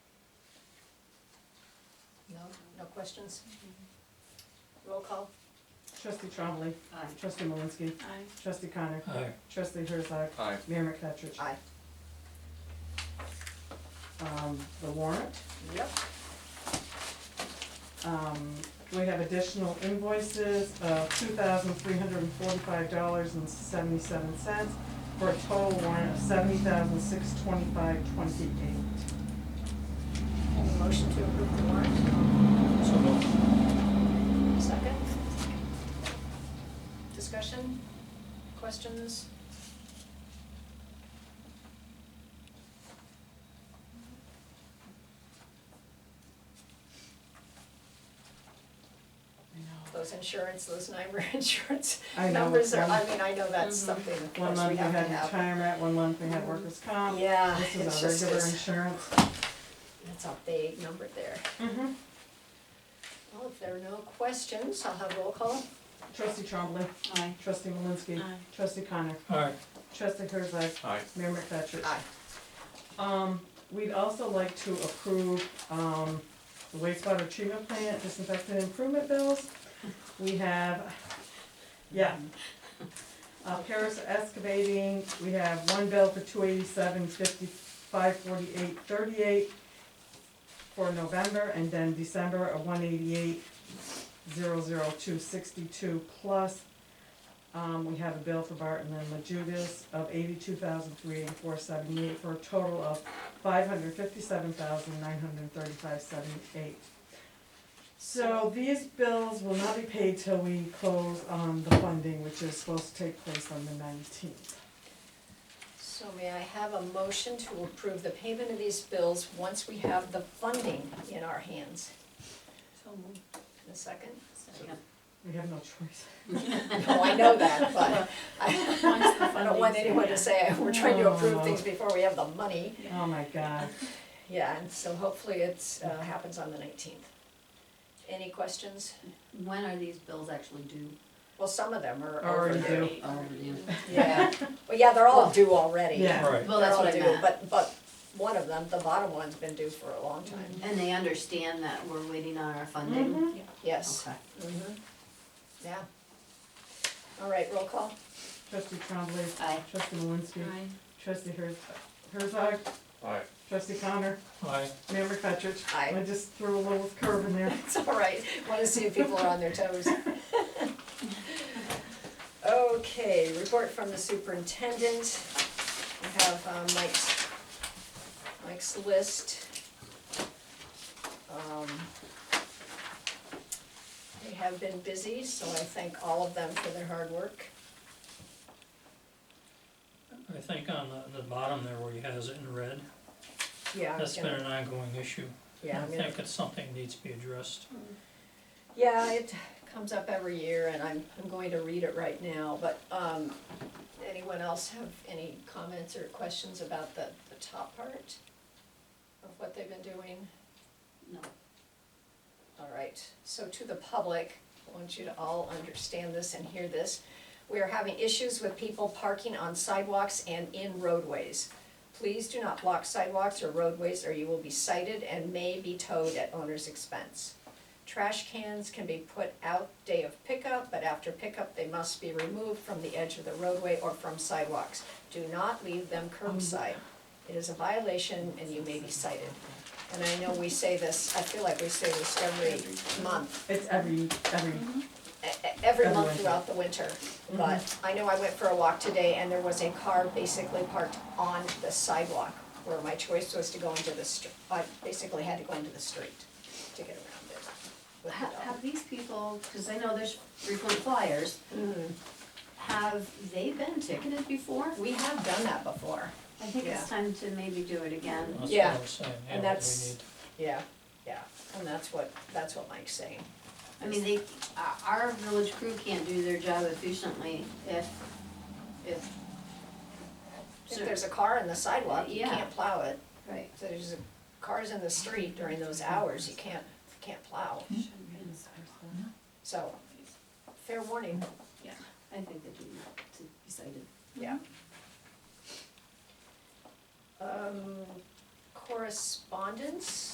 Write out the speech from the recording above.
questions? Roll call? Trustee Trombley. Aye. Trustee Malinsky. Aye. Trustee Connor. Aye. Trustee Herzog. Aye. Mayor McFetrich. Aye. Um, the warrant. Yep. Um, we have additional invoices of two thousand three hundred and forty-five dollars and seventy-seven cents for a total warrant of seventy thousand six twenty-five twenty-eight. Any motion to approve the warrant? So moved. Second? Discussion? Questions? Those insurance, those NYMER insurance I know, numbers are, I one- Mhm. mean, I know that's something, of One course, we month we have to had have. retirement, one month we had workers' comp. Yeah, it's This is our just, regular it's, insurance. that's a big number there. Mhm. Well, if there are no questions, I'll have roll call. Trustee Trombley. Aye. Trustee Malinsky. Aye. Trustee Connor. Aye. Trustee Herzog. Aye. Mayor McFetrich. Aye. Um, we'd also like to approve, um, the wastewater treatment plant disinfectant improvement bills. We have, yeah. Uh, Paris Excavating, we have one bill for two eighty-seven fifty-five forty-eight thirty-eight for November, and then December of one eighty-eight zero zero two sixty-two plus. Um, we have a bill for Barton and La Judas of eighty-two thousand three eighty-four seventy-eight for a total of five hundred fifty-seven thousand nine hundred thirty-five seventy-eight. So these bills will not be paid till we close on the funding, which is supposed to take place on the nineteenth. So may I have a motion to approve the payment of these bills once we have the funding in our hands? So moved. In a second? Second. We have no choice. No, I know that, but I Once the I don't want funding's in, anyone to yeah. say, we're trying to approve things before we have the money. Oh my God. Oh. Yeah, and so hopefully it's, uh, happens on the nineteenth. Any questions? When are these bills actually due? Well, some of them are Already overdue. due. Oh, yeah. Yeah, well, yeah, they're all due already. Yeah. Right. Well, that's They're all what I due, meant. But, but one of them, the bottom one's been due for a long time, And they understand that we're waiting on our funding? Mhm. yes. Okay. Mhm. Yeah. All right, roll call. Trustee Trombley. Aye. Trustee Malinsky. Trustee Herz- Herzog. Aye. Trustee Connor. Aye. Mayor McFetrich. Aye. I just threw a little curve in there. It's all right. Want to see if people are on their toes. Okay, report from the superintendent. We have um, Mike's, Mike's list. Um, They have been busy, so I thank all of them for their hard work. I think on the, the bottom there where he has it in red, Yeah, I'm that's been gonna, an ongoing issue. yeah, I I'm gonna, think it's something that needs to be addressed. yeah, it comes up every year and I'm, I'm going to read it right now, but, um, anyone else have any comments or questions about the, the top part of what they've been doing? No. All right, so to the public, I want you to all understand this and hear this. We are having issues with people parking on sidewalks and in roadways. Please do not block sidewalks or roadways or you will be cited and may be towed at owner's expense. Trash cans can be put out day of pickup, but after pickup, they must be removed from the edge of the roadway or from sidewalks. Do not leave them curbside. It is a violation and you may be cited. And I know we say this, I feel like we say this every month, It's every, every, e- e- every Every month winter. throughout the winter. But I know I went for a walk today and there was a car basically parked on the sidewalk where my choice was to go into the street. I basically had to go into the street to get around it with the Have, dog. have these people, because I know there's frequent flyers, Mm-hmm. have they been ticketed before? We have done that before, I think Yeah. it's time to maybe do it again. That's what Yeah, I'm saying, yeah, and we that's- need- yeah, yeah, and that's what, that's what Mike's saying. I mean, they, our- our village crew can't do their job efficiently if, if. If there's a car in the sidewalk, you Yeah. can't plow it. Right. So there's cars in the street during those hours, you can't, can't plow, so, fair warning, I think they do not to be cited. yeah. Um, correspondence?